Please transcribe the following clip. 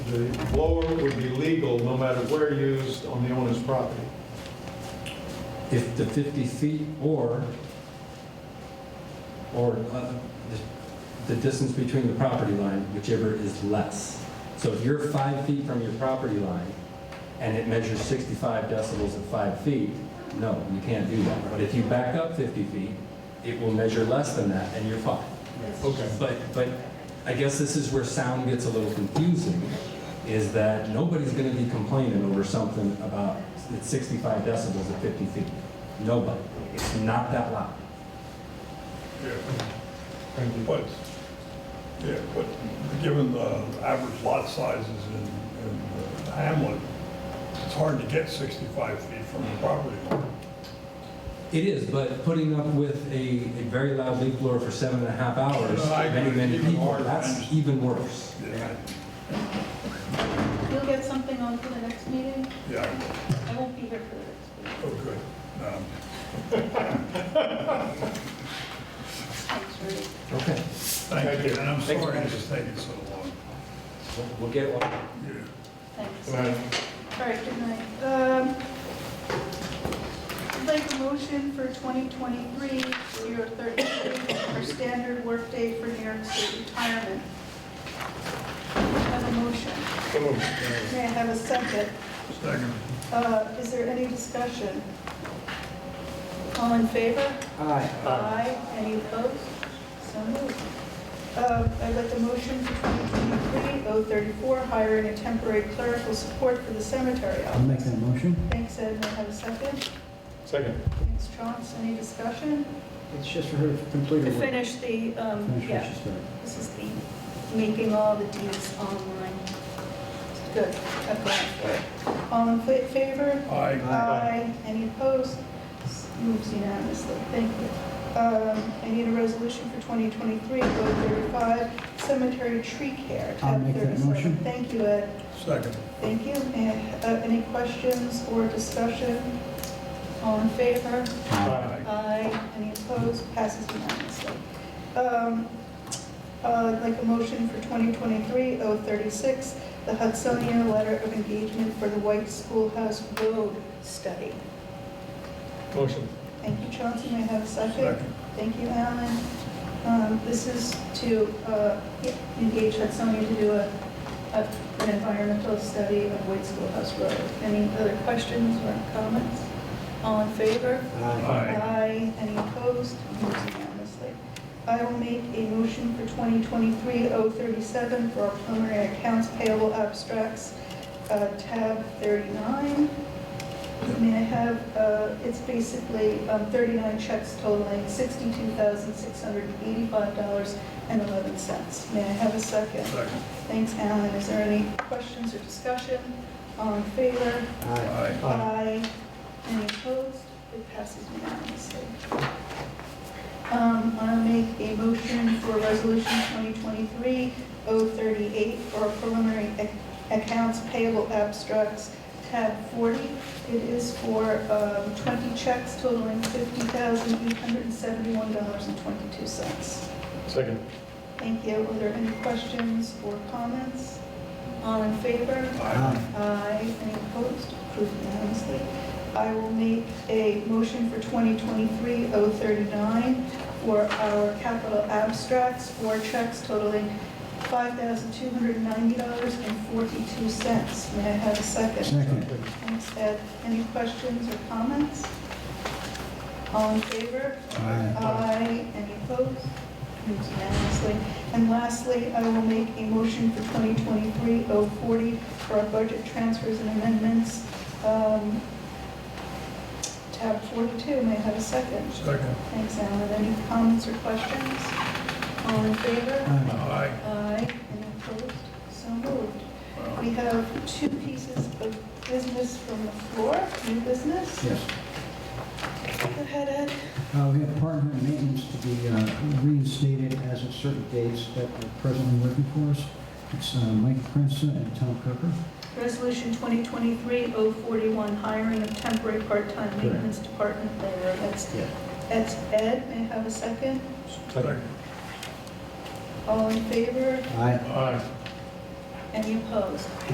the blower would be legal no matter where used on the owner's property. If the 50 feet or, or uh, the the distance between the property line, whichever is less. So if you're five feet from your property line and it measures 65 decibels at five feet, no, you can't do that. But if you back up 50 feet, it will measure less than that and you're fine. Okay. But, but I guess this is where sound gets a little confusing, is that nobody's gonna be complaining over something about, it's 65 decibels at 50 feet. Nobody. It's not that loud. Thank you. But, yeah, but given the average lot sizes in, in the Hamlet, it's hard to get 65 feet from the property line. It is, but putting up with a, a very loud leaf blower for seven and a half hours, No, I agree. many, many Even people, harder. that's even worse. Yeah, You'll get something on for the next meeting? yeah, I won't be here for the next meeting. oh, good. No. Thanks, Rudy. Okay. Thank you, and I'm Thank you. sorry this is taking so long. We'll- We'll get one. Yeah. Thanks. Can I- All right, good night. Um, I'd like a motion for 2023-033 for standard workday for New York State retirement. Have a motion. Come on. May I have a second? Second, Uh, Is there any discussion? All in favor? Aye. Aye. Any opposed? So moved. Uh, I'd like a motion for 2023-034, hiring a temporary clerical support for the cemetery I'll office. make that motion. Thanks, Ed. May I have a second? Second. Thanks, Chauncey. Any discussion? It's just for her to complete To her work. Finish finish the, um, what yeah, she started. this is the, making all the deeds online. Good. I've got it. All in fa- favor? aye. Aye. Any opposed? S- Moves unanimously. Thank you. Um, I need a resolution for 2023-035, cemetery tree care. I'll tab make that 37. motion. Thank you, Ed. Second, Thank you. And, uh, Any questions or discussion? All in favor? aye. Aye. Any opposed? Passes unanimously. Um, uh, I'd like a motion for 2023-036, the Hudsonia Letter of Engagement for the White Schoolhouse Road Study. Motion. Thank you, Chauncey. May I have a second? Second, Thank you, Alan. Um, This is to uh, engage Hudsonia to do a, a- an environmental study of White Schoolhouse Road. Any other questions or comments? All in favor? Aye. Aye. Any opposed? Moves unanimously. I will make a motion for 2023-037 for our preliminary accounts payable abstracts, uh, tab 39. May I have, uh, it's basically um, 39 checks totaling $62,685.11. May I have a second? second, Thanks, Alan. Is there any questions or discussion? All in favor? Aye. aye. Aye. Any opposed? It passes unanimously. Um, I'll make a motion for Resolution 2023-038 for preliminary ac- accounts payable abstracts, tab 40. It is for um, 20 checks totaling $50,871.22. Second. Thank you. Are there any questions or comments? All in favor? Aye. Aye. Any opposed? Approved unanimously. I will make a motion for 2023-039 for our capital abstracts for checks totaling $5,290.42. May I have a second? Second. Thanks, Ed. Any questions or comments? All in favor? Aye. Aye. Any opposed? Moves unanimously. And lastly, I will make a motion for 2023-040 for our budget transfers and amendments. um, Tab 42, may I have a second? Second, Thanks, Alan. Any comments or questions? All in favor? Aye. aye. Aye. Any opposed? So moved. Wow. We have two pieces of business from the floor, new business. Yes. Go ahead, Ed. Uh, We have department maintenance to be uh, reinstated as of certain dates that are presently working for us. It's uh, Mike Prince and Tom Cooper. Resolution 2023-041, hiring of temporary part-time Correct. maintenance department laborer. That's, Yeah. that's Ed, may I have a second? Second, All in favor? Aye. aye. Any opposed?